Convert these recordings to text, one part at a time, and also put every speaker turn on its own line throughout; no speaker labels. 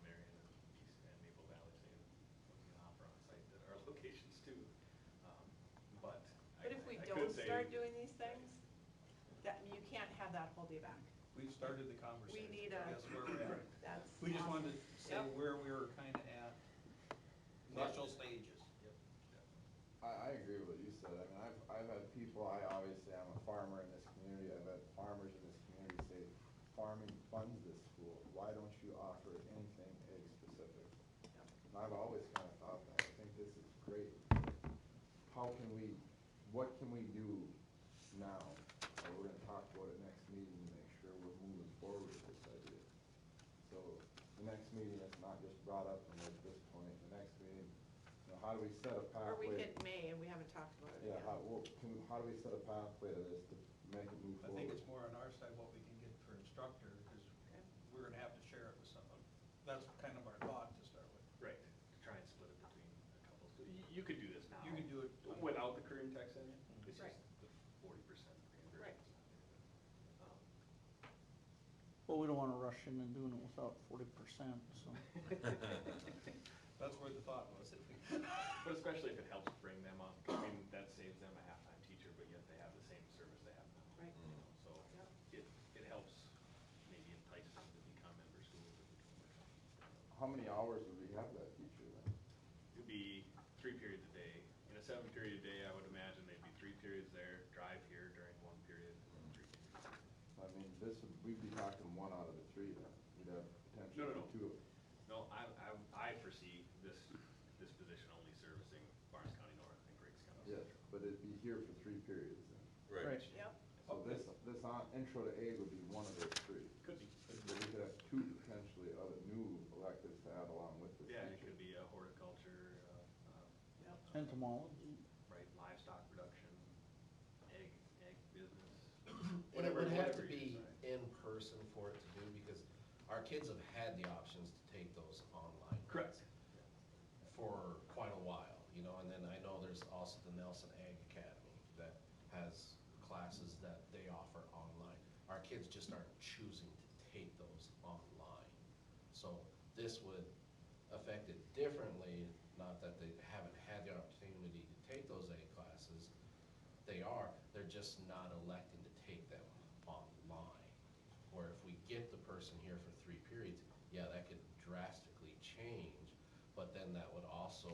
Um,
hold you back.
We've started the conversation.
We need a-
That's where we're at.
That's.
We just wanted to
awesome.
say
Yep.
where we were kind of at.
Initial stages.
I, I agree with what you said. I mean, I've, I've had people, I obviously am a farmer in this community, I've had farmers in this community say, farming funds this school, why don't you offer anything egg specific? And I've always kind of thought that, I think this is great. How can we, what can we do now? And we're gonna talk about it next meeting and make sure we're moving forward with this idea. So the next meeting is not just brought up and at this point, the next meeting, you know, how do we set a pathway?
Or we could May, and we haven't talked about it
Yeah,
yet.
how, well, can, how do we set a pathway to this to make it move
I think
forward?
it's more on our side what we can get for instructor, because we're gonna have to share it with someone. That's kind of our thought to start with.
Right, to try and split it between a couple. So y- You could do this now.
You could do it on-
Without the Korean tax in it. It's
Right.
just the forty percent.
Right.
Well, we don't want to rush in and doing it without forty percent, so.
That's where the thought was.
Um, But especially if it helps bring them up, I mean, that saves them a half-time teacher, but yet they have the same service they have now.
Right.
you know, So it, it helps maybe entice them to become member schools. or become-
How many hours would we have that teacher then?
It'd be three periods a day. In a seven period a day, I would imagine they'd be three periods there, drive here during one period, and three periods.
I mean, this would, we'd be talking one out of the three then, we'd have
No, no,
potentially
no.
two of them.
No, I, I, I foresee this, this position only servicing Barnes County North and Griggs County
Yes,
Central.
but it'd be here for three periods then.
Right.
Yep,
So this, this on, intro to egg would be one of those three.
Could be.
But we could have two potentially other new electives to add along with this teacher.
Yeah, it could be uh, horticulture, uh, uh,
Yep.
Entomology,
right, livestock production, egg, egg business.
And it would have to
whatever you
be
decide.
in person for it to do, because our kids have had the options to take those online.
Correct.
For quite a while, you know, and then I know there's also the Nelson Ag Academy that has classes that they offer online. Our kids just aren't choosing to take those online. So this would affect it differently, not that they haven't had the opportunity to take those ag classes, they are, they're just not electing to take them online. Or if we get the person here for three periods, yeah, that could drastically change, but then that would also,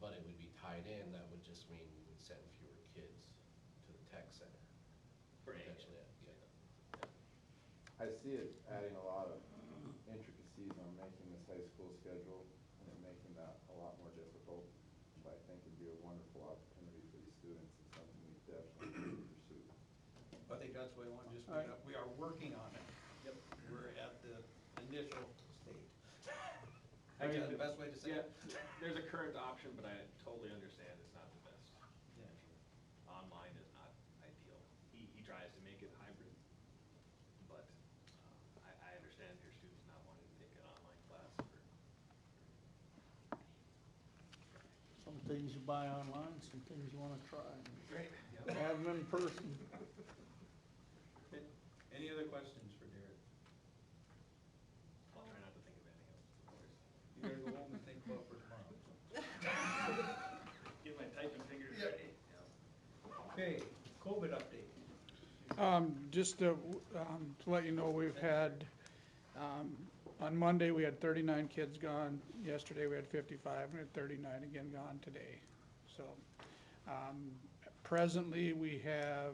but it would be tied in, that would just mean we would send fewer kids to the tech center.
For egg.
Potentially, yeah.
I see it adding a lot of intricacies on making this high school schedule and it making that a lot more difficult. But I think it'd be a wonderful opportunity for these students and something we definitely need to pursue.
I think that's why I want to just, bring it up. we are working on it. Yep. We're at the initial stage. I guess the best way to say it.
Yeah, There's a current option, but I totally understand it's not the best. Online is not ideal. He, he tries to make it hybrid, but uh, I, I understand your students not wanting to take an online class for
some things you buy online, some things you want to try.
Great.
Have them in person.
Any other questions for Derek?
I'll try not to think of anything else.
You gotta go home and think about for tomorrow.
Get my typing fingers ready.
Okay, COVID update.
Um, Just to um, to let you know, we've had, um, on Monday, we had 39 kids gone. Yesterday, we had 55, and we had 39 again gone today. So um, presently, we have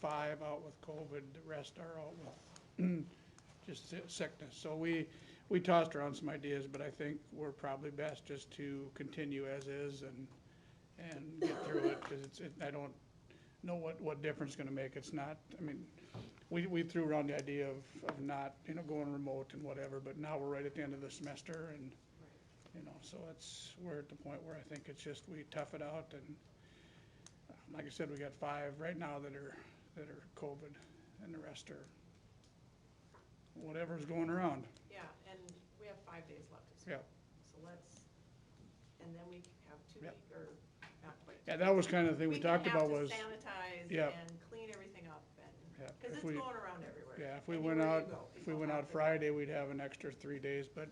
five out with COVID. The rest are out with just si- sickness. So we, we tossed around some ideas, but I think we're probably best just to continue as is and, and get through it, because it's, it- I don't know what, what difference it's gonna make. It's not, I mean, we, we threw around the idea of, of not, you know, going remote and whatever, but now we're right at the end of the semester and, you know, so it's, we're at the point where I think it's just, we tough it out and, um, like I said, we got five right now that are, that are COVID and the rest are whatever's going around.
yeah, and we have five days left of school.
Yeah.
So let's, and then we can have two
Yeah.
week, or not quite.
Yeah, that was kind of the thing we
can
talked about
have to
was.
Sanitize
Yeah.
and clean everything up
Yeah,
and, because
if
it's
we-
going around everywhere.
Yeah, if we went
Anywhere you
out,
go,
if we
people
went
have
out
it.
Friday, we'd have an extra three days, but